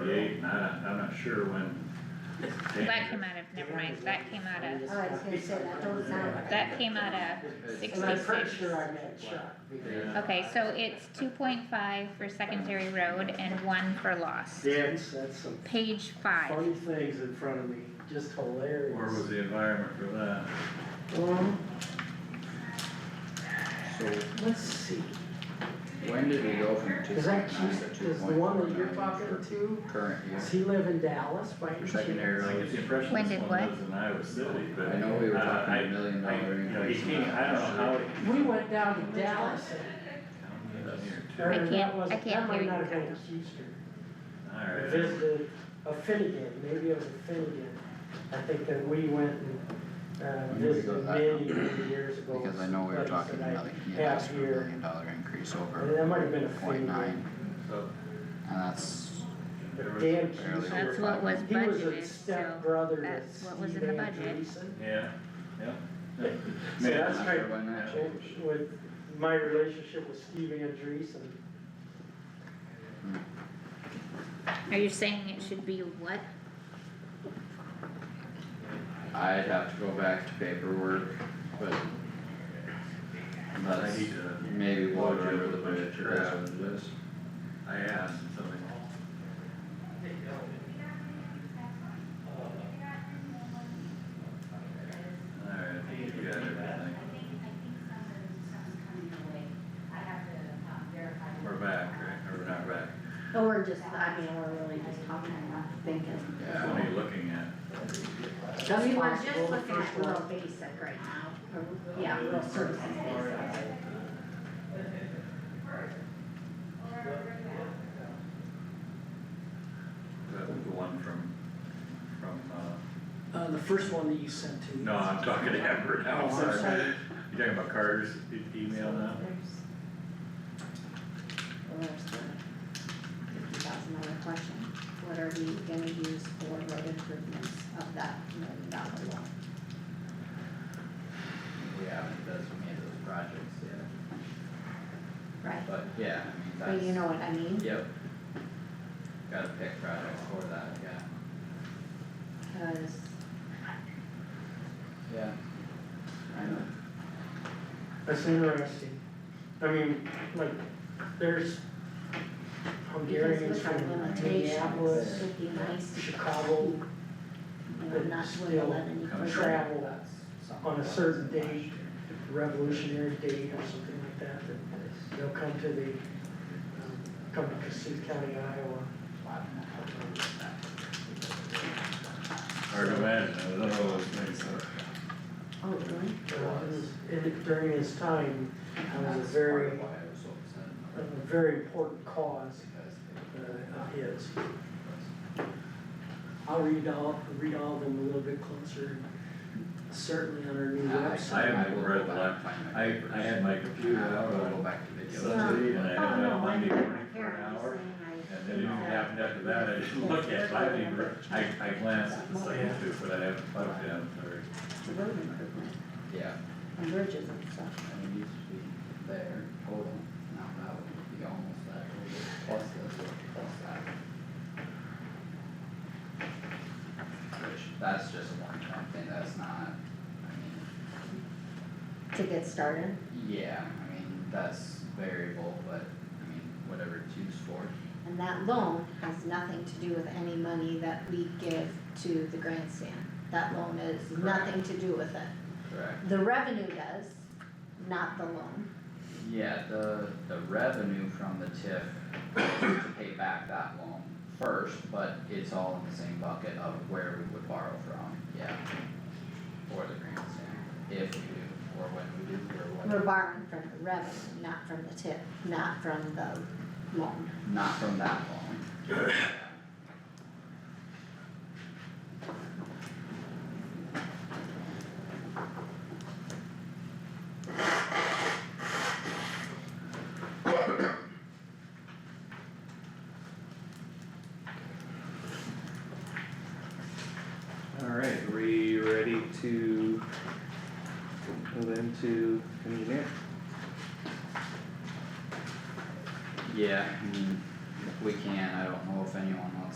waiting on it, I'm not sure when. That came out of, never mind, that came out of, Oh, I was gonna say that don't sound. that came out of And I'm pretty sixty-six. sure I meant Chuck. Yeah. Okay, so it's two point five for secondary road and one for loss. Dan's, that's some Page five, funny things in front of me, just hilarious. Where was the environment for that? Um, So let's see, when did we go from two is point that nine Keith, to two is the point one four that you're nine talking to, current year? does he live in Dallas by any For chance? secondary I get the impression When this did one what? lives in Iowa City, but. I know we were uh, talking I- a million I- dollar you know, he increase in can't- I don't know how. that. it- We went down to Dallas, County engineer, too. or I that can't- was, I that can't might hear not you. have been Houston. Alright. Visited a Finnegan, maybe it was a Finnegan, I think that we went and, uh, When did we go visited back? many, many years ago. Because I know we were Like talking said, I- another, he have asked for a here. million dollar increase And that over might have been a point Finnegan, nine, So, and that's, there but was- Dan Barely. Houston. that's what was He was budgeted, a so. stepbrother to that's what was Steve in the budget. Andreessen. Yeah, yeah. So Man, that's I'm right. sure when that changed. With my relationship with Steve Andreessen, Are you saying it should be what? I'd have to go back to paperwork, but I that's need to- maybe water under the bridge, Yeah. or that's what it is. I asked and something. Alright, I think you got everything. I think, I think some of the stuff's coming your way. I have to um, verify. We're back, right, or we're not back, But we're just, I mean, we're really just talking and not thinking. what Yeah, are you looking at? that's We were possible, just the looking first at one. rural basic right now, or, yeah, rural services basic. Is that the one from, from, uh, Uh, the first one that you sent to. no, I'm talking to Amber now, Oh, I'm I'm sorry. sorry. You talking about Carter's e- email now? Well, there's the fifty thousand dollar question, what are we gonna use for road improvements of that million dollar loan? we haven't designated those projects yet, Right, but yeah, I but mean, you that's, know what I mean, yep. Gotta pick projects for that, yeah. cause Yeah. I know. That's interesting, I mean, like, there's because Hungarians with our from limitations, Minneapolis, it'd be nice to. Chicago, You know, not but would still let any come further. travel on a certain date, revolutionary date or something like that, that they'll come to the, um, come to Cassuth County, Iowa. Hard to imagine, I don't know those things, Oh, really? Um, and during his time, it was a very, That's a part of why I was so upset about it, very important cause because uh, they- of his. I'll read all, read all of them a little bit closer, certainly on our new I website. haven't will go read back that. and find my I, papers. I had my computer out I'll go on back to video. Sunday and I Oh, had it no, on I'm Monday not morning for prepared, I'm an just hour. saying I And then think even that- happened after that, I didn't look at, it. I didn't, even- I, I glanced at the second two, but I haven't plugged in, I'm sorry. It's a road improvement Yeah, and bridges and stuff. I mean, it used to be there total, now that would be almost that, total, plus this, or plus that. Which, that's just a one time thing, that's not, I mean, To get started, Yeah, I mean, that's variable, but I mean, whatever it's used for. and that loan has nothing to do with any money that we give to the grandstand. That loan is nothing to do with it. Correct. The revenue does, not the loan. Yeah, the, the revenue from the TIF is to pay back that loan first, but it's all in the same bucket of where we would borrow from, yeah. For the grandstand, if we do, or when we do, or We're whatever, borrowing from the revenue, not from the tip, not from the loan. not from that loan. Alright, are we ready to move into engineer? Yeah, I mean, if we can, I don't know if anyone wants